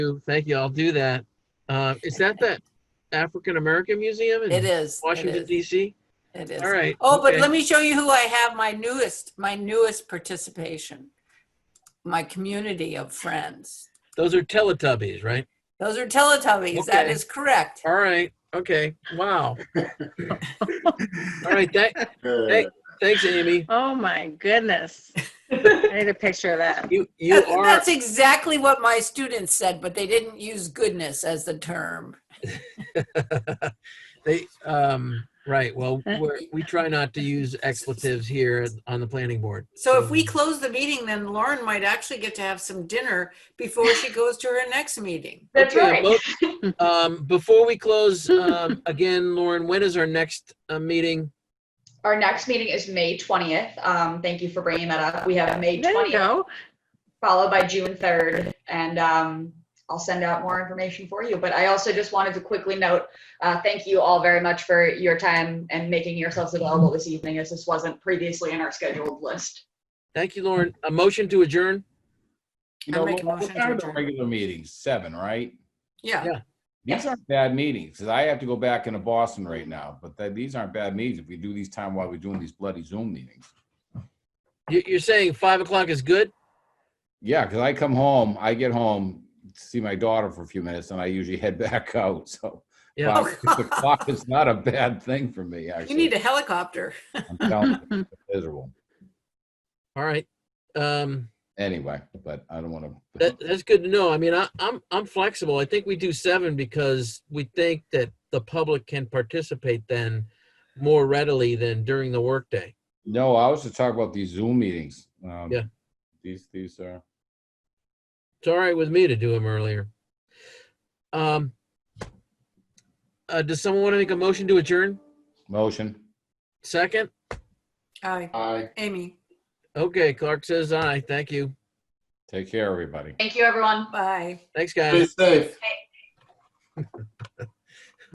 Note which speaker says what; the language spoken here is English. Speaker 1: you. Thank you. I'll do that. Uh, is that that African American Museum
Speaker 2: It
Speaker 1: in
Speaker 2: is. it
Speaker 1: Washington
Speaker 2: is,
Speaker 1: DC?
Speaker 2: It is.
Speaker 1: All right.
Speaker 2: Oh, but
Speaker 1: okay.
Speaker 2: let me show you who I have, my newest, my newest participation. My community of friends.
Speaker 1: Those are Teletubbies, right?
Speaker 2: Those are Teletubbies. That
Speaker 1: Okay.
Speaker 2: is correct.
Speaker 1: All right. Okay. Wow. All right. That,
Speaker 3: Uh,
Speaker 1: thanks, Amy.
Speaker 4: Oh my goodness. I need a picture of that.
Speaker 1: You you
Speaker 2: That's
Speaker 1: are
Speaker 2: that's exactly what my students said, but they didn't use goodness as the term.
Speaker 1: they um right. Well, we're, we try not to use expletives here on the planning board.
Speaker 2: So if we
Speaker 1: Hmm.
Speaker 2: close the meeting, then Lauren might actually get to have some dinner before she goes to her next meeting.
Speaker 5: That's
Speaker 1: Okay,
Speaker 5: right.
Speaker 1: well, um, before we close, um, again, Lauren, when is our next uh, meeting?
Speaker 5: Our next meeting is May 20th. Um, thank you for bringing that up. We have May
Speaker 4: There you
Speaker 5: 20th
Speaker 4: go.
Speaker 5: followed by June 3rd. And um, I'll send out more information for you. But I also just wanted to quickly note, uh, thank you all very much for your time and making yourselves available this evening as this wasn't previously in our scheduled list.
Speaker 1: Thank you, Lauren. A motion to adjourn?
Speaker 3: You
Speaker 2: I
Speaker 3: know,
Speaker 2: make a
Speaker 3: what
Speaker 2: motion to
Speaker 3: what are the
Speaker 2: adjourn.
Speaker 3: regular meetings? Seven, right?
Speaker 2: Yeah.
Speaker 5: Yes.
Speaker 3: These aren't bad meetings, 'cause I have to go back into Boston right now, but th- these aren't bad meetings if we do these time while we're doing these bloody Zoom meetings.
Speaker 1: You, you're saying five o'clock is good?
Speaker 3: Yeah, because I come home, I get home, see my daughter for a few minutes, and I usually head back out, so.
Speaker 1: Yeah.
Speaker 3: five, six o'clock is not a bad thing for me,
Speaker 2: You need
Speaker 3: actually.
Speaker 2: a helicopter.
Speaker 3: I'm telling you, it's Miserable,
Speaker 1: All right. Um,
Speaker 3: anyway, but I don't want
Speaker 1: that,
Speaker 3: to.
Speaker 1: that's good to know. I mean, I, I'm, I'm flexible. I think we do seven because we think that the public can participate then more readily than during the workday.
Speaker 3: No, I was to talk about these Zoom meetings. um,
Speaker 1: Yeah.
Speaker 3: These, these are,
Speaker 1: It's all right with me to do them earlier. Um, uh, does someone want to make a motion to adjourn?
Speaker 3: motion.
Speaker 1: Second?
Speaker 2: Hi,
Speaker 3: Aye.
Speaker 2: Amy.
Speaker 1: Okay, Clark says aye. Thank you.
Speaker 3: Take care, everybody.
Speaker 5: Thank you, everyone.
Speaker 2: Bye.
Speaker 1: Thanks, guys.
Speaker 3: safe.
Speaker 5: Bye.